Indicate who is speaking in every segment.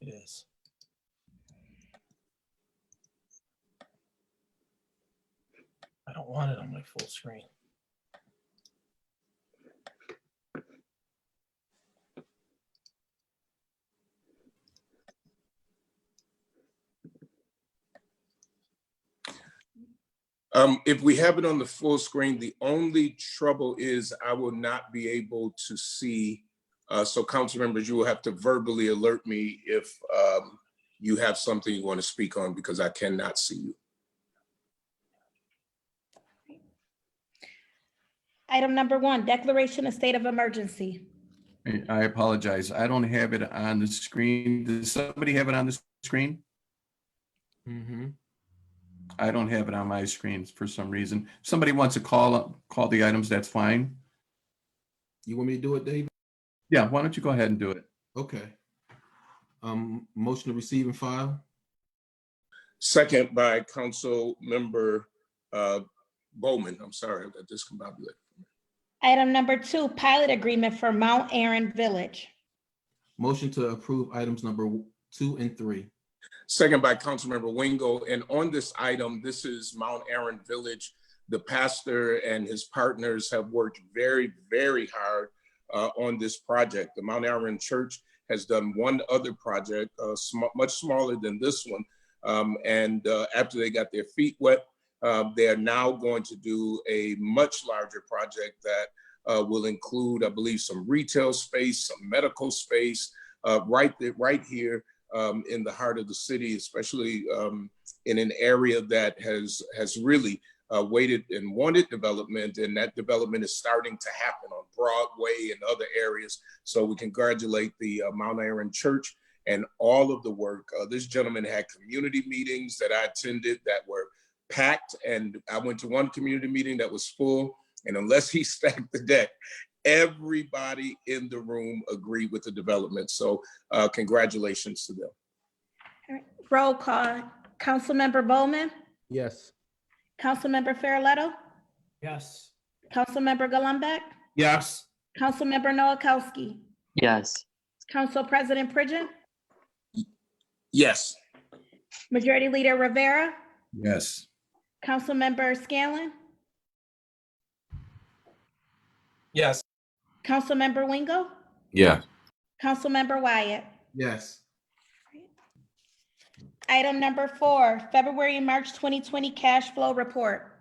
Speaker 1: Yes. I don't want it on my full screen.
Speaker 2: Um, if we have it on the full screen, the only trouble is I will not be able to see. Uh, so council members, you will have to verbally alert me if, um, you have something you want to speak on because I cannot see you.
Speaker 3: Item number one, declaration of state of emergency.
Speaker 4: I- I apologize. I don't have it on the screen. Does somebody have it on the screen?
Speaker 1: Mm-hmm.
Speaker 4: I don't have it on my screen for some reason. Somebody wants to call, up- call the items, that's fine.
Speaker 5: You want me to do it, Dave?
Speaker 4: Yeah, why don't you go ahead and do it?
Speaker 5: Okay. Um, motion to receive and file?
Speaker 2: Second by council member, uh, Bowman. I'm sorry, I got discombobulated.
Speaker 3: Item number two, pilot agreement for Mount Aaron Village.
Speaker 5: Motion to approve items number two and three.
Speaker 2: Second by Councilmember Wingo. And on this item, this is Mount Aaron Village. The pastor and his partners have worked very, very hard uh, on this project. The Mount Aaron Church has done one other project, uh, sm- much smaller than this one. Um, And uh, after they got their feet wet, uh, they are now going to do a much larger project that uh, will include, I believe, some retail space, some medical space, uh, right there, right here um, in the heart of the city, especially um, in an area that has has really uh, waited and wanted development, and that development is starting to happen on Broadway and other areas. So we congratulate the uh, Mount Aaron Church and all of the work. Uh, this gentleman had community meetings that I attended that were packed, and I went to one community meeting that was full. And unless he stacked the deck, everybody in the room agreed with the development. So uh, congratulations to them.
Speaker 3: Roll call, Councilmember Bowman,
Speaker 5: Yes.
Speaker 3: Councilmember Farrelletto,
Speaker 1: Yes.
Speaker 3: Councilmember Gullumbeck. Yes. Councilmember Noakowski,
Speaker 6: yes,
Speaker 3: Council President Pridgen,
Speaker 2: Yes.
Speaker 3: Majority Leader Rivera,
Speaker 4: Yes.
Speaker 3: Councilmember Scanlon,
Speaker 1: Yes.
Speaker 3: Councilmember Wingo,
Speaker 7: yeah,
Speaker 3: Councilmember Wyatt.
Speaker 5: Yes.
Speaker 3: Item number four, February and March 2020 cash flow report.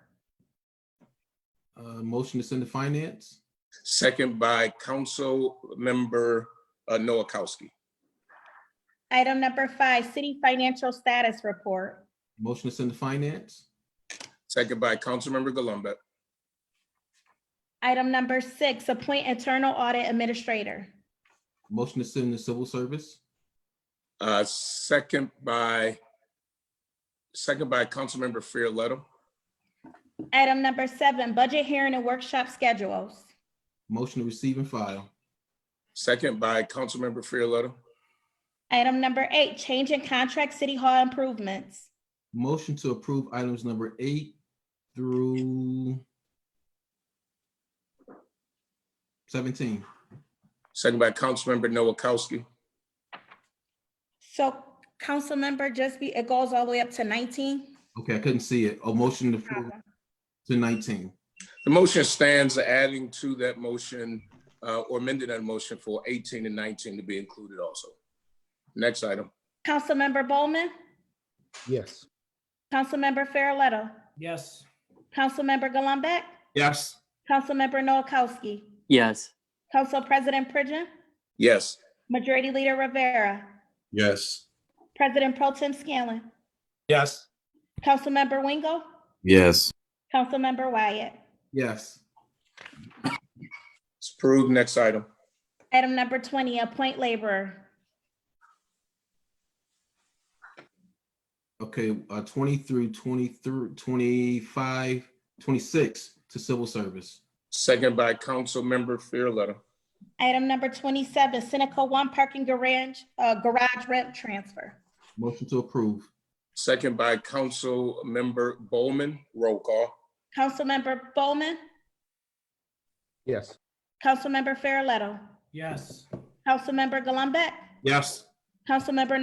Speaker 5: Uh, motion to send to finance?
Speaker 2: Second by Council Member uh, Noakowski.
Speaker 3: Item number five, city financial status report.
Speaker 5: Motion to send to finance?
Speaker 2: Second by Councilmember Gullumbeck.
Speaker 3: Item number six, appoint internal audit administrator.
Speaker 5: Motion to send to civil service?
Speaker 2: Uh, second by second by Councilmember Farrelletto.
Speaker 3: Item number seven, budget hearing and workshop schedules.
Speaker 5: Motion to receive and file?
Speaker 2: Second by Councilmember Farrelletto.
Speaker 3: Item number eight, change in contract city hall improvements.
Speaker 5: Motion to approve items number eight through seventeen?
Speaker 2: Second by Councilmember Noakowski.
Speaker 3: So council member, just be, it goes all the way up to 19.
Speaker 5: Okay, I couldn't see it. A motion to approve to nineteen?
Speaker 2: The motion stands adding to that motion uh, or amending that motion for 18 and 19 to be included also. Next item.
Speaker 3: Council member Bowman,
Speaker 5: Yes.
Speaker 3: Councilmember Farrelletto,
Speaker 1: Yes.
Speaker 3: Councilmember Gullumbeck,
Speaker 5: Yes.
Speaker 3: Councilmember Noakowski,
Speaker 6: yes,
Speaker 3: Council President Pridgen,
Speaker 2: Yes.
Speaker 3: Majority Leader Rivera,
Speaker 4: Yes.
Speaker 3: President Pro Tem Scanlon,
Speaker 1: Yes.
Speaker 3: Councilmember Wingo,
Speaker 7: yes,
Speaker 3: Councilmember Wyatt.
Speaker 5: Yes.
Speaker 2: It's approved. Next item.
Speaker 3: Item number twenty, appoint laborer.
Speaker 5: Okay, uh, 23, 23, 25, 26 to civil service.
Speaker 2: Second by Councilmember Farrelletto.
Speaker 3: Item number twenty-seven, Seneca One Parking Garage, uh, Garage Rent Transfer.
Speaker 5: Motion to approve.
Speaker 2: Second by Council Member Bowman. Roll call.
Speaker 3: Councilmember Bowman,
Speaker 5: Yes.
Speaker 3: Councilmember Farrelletto,
Speaker 1: Yes.
Speaker 3: Councilmember Gullumbeck,
Speaker 5: Yes.
Speaker 3: Councilmember